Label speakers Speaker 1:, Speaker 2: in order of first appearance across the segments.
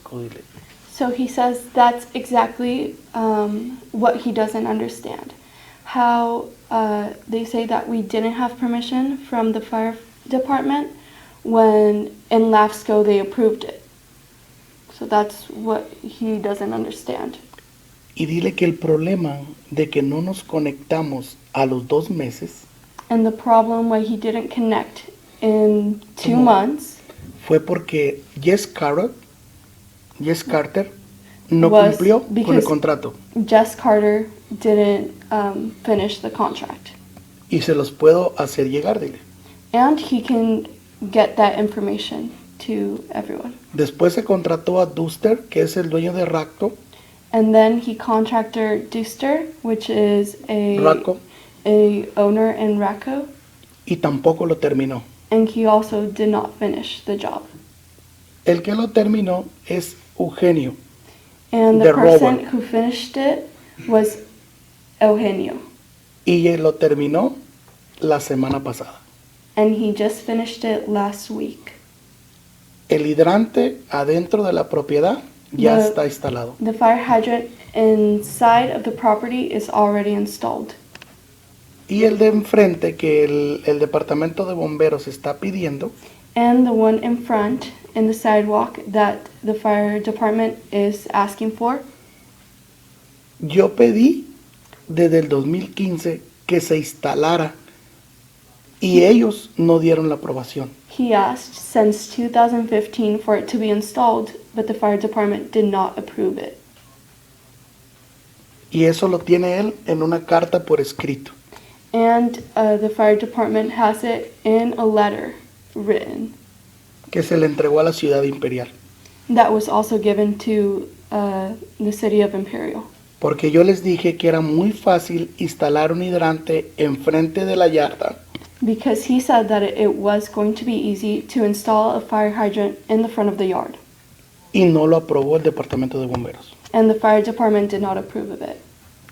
Speaker 1: excluded.
Speaker 2: So he says that's exactly um, what he doesn't understand. How uh, they say that we didn't have permission from the fire department when in LAFSCO they approved it. So that's what he doesn't understand.
Speaker 1: Y dile que el problema de que no nos conectamos a los dos meses
Speaker 2: And the problem why he didn't connect in two
Speaker 1: Como-
Speaker 2: months
Speaker 1: fue porque Jess Carrot, Jess Carter, no
Speaker 2: Was
Speaker 1: cumplió con el
Speaker 2: because-
Speaker 1: contrato.
Speaker 2: Jess Carter didn't um, finish the contract.
Speaker 1: Y se los puedo hacer llegar, dile.
Speaker 2: And he can get that information to everyone.
Speaker 1: Después se contrató a Duster, que es el dueño de Racto,
Speaker 2: And then he contracted Dooster, which is a
Speaker 1: Racco,
Speaker 2: a owner in Racco,
Speaker 1: y tampoco lo terminó.
Speaker 2: and he also did not finish the job.
Speaker 1: El que lo terminó es Eugenio.
Speaker 2: And the
Speaker 1: The
Speaker 2: person
Speaker 1: robot.
Speaker 2: who finished it was Eugenio,
Speaker 1: Y él lo terminó la semana pasada.
Speaker 2: and he just finished it last week.
Speaker 1: El hidrante adentro de la propiedad ya
Speaker 2: No.
Speaker 1: está instalado.
Speaker 2: The fire hydrant inside of the property is already installed,
Speaker 1: Y el de enfrente que el, el departamento de bomberos está pidiendo
Speaker 2: and the one in front in the sidewalk that the fire department is asking for
Speaker 1: Yo pedí desde el 2015 que se instalara y ellos no dieron la aprobación.
Speaker 2: He asked since 2015 for it to be installed, but the fire department did not approve it.
Speaker 1: Y eso lo tiene él en una carta por escrito.
Speaker 2: And uh, the fire department has it in a letter written
Speaker 1: que se le entregó a la ciudad imperial.
Speaker 2: that was also given to uh, the city of Imperial.
Speaker 1: Porque yo les dije que era muy fácil instalar un hidrante enfrente de la yarda
Speaker 2: Because he said that it, it was going to be easy to install a fire hydrant in the front of the yard.
Speaker 1: y no lo aprobó el departamento de bomberos.
Speaker 2: And the fire department did not approve of it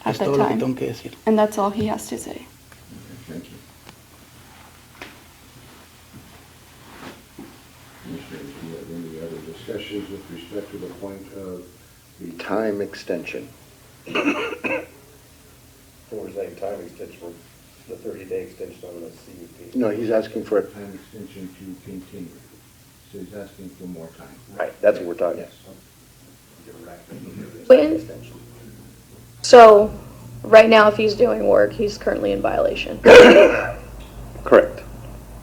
Speaker 2: at
Speaker 1: Es
Speaker 2: that
Speaker 1: todo lo que tengo
Speaker 2: time.
Speaker 1: que decir.
Speaker 2: And that's all he has to say.
Speaker 3: Thank you. Commissioners, do you have any other discussions with respect to the point of the time extension?
Speaker 4: And we're saying time extension, for the thirty-day extension on the CUP.
Speaker 3: No, he's asking for a time extension to continue. So he's asking for more time.
Speaker 4: Right, that's what we're talking.
Speaker 3: Yes.
Speaker 5: When, so, right now, if he's doing work, he's currently in violation.
Speaker 4: Correct.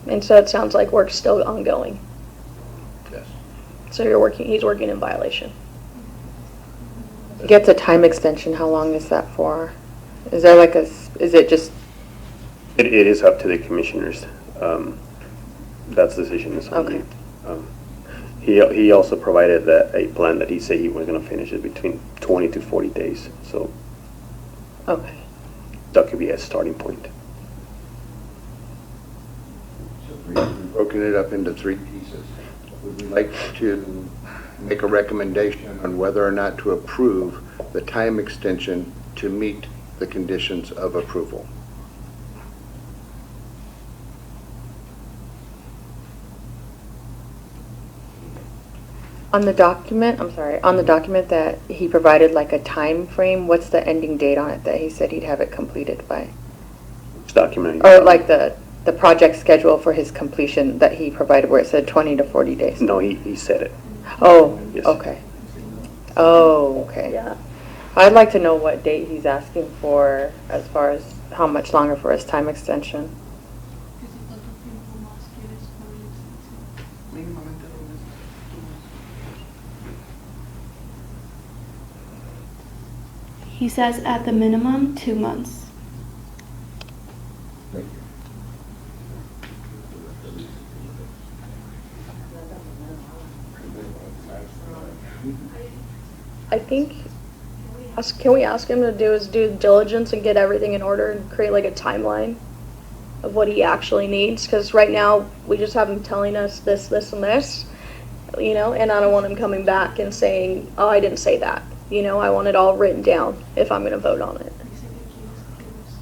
Speaker 5: And so it sounds like work's still ongoing.
Speaker 3: Yes.
Speaker 5: So you're working, he's working in violation.
Speaker 6: Gets a time extension, how long is that for? Is there like a, s- is it just,
Speaker 7: It, it is up to the commissioners. Um, that's the decision is on
Speaker 6: Okay.
Speaker 7: you. Um, He, he also provided that a plan that he said he was gonna finish it between twenty to forty days, so
Speaker 6: okay.
Speaker 7: that could be a starting point.
Speaker 3: So we- We've broken it up into three pieces. Would we like to make a recommendation on whether or not to approve the time extension to meet the conditions of approval?
Speaker 6: On the document, I'm sorry, on the document that he provided like a time frame, what's the ending date on it that he said he'd have it completed by?
Speaker 7: It's documented.
Speaker 6: Or like the, the project schedule for his completion that he provided where it said twenty to forty days?
Speaker 7: No, he, he said it.
Speaker 6: Oh,
Speaker 7: Yes.
Speaker 6: okay. Oh, okay. I'd like to know what date he's asking for as far as how much longer for his time extension.
Speaker 2: He says at the minimum, two months.
Speaker 3: Thank you.
Speaker 5: I think, ask- can we ask him to do his due diligence and get everything in order and create like a timeline of what he actually needs? Because right now, we just have him telling us this, this, and this, you know, and I don't want him coming back and saying, oh, I didn't say that. You know, I want it all written down if I'm going to vote on it,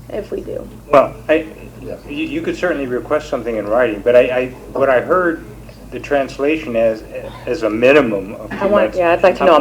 Speaker 5: if we do.
Speaker 8: Well, I,
Speaker 3: Yeah.
Speaker 8: you, you could certainly request something in writing, but I, I, what I heard
Speaker 9: the translation as, as a minimum of two
Speaker 7: I want,
Speaker 9: months.
Speaker 7: yeah, I'd like to know a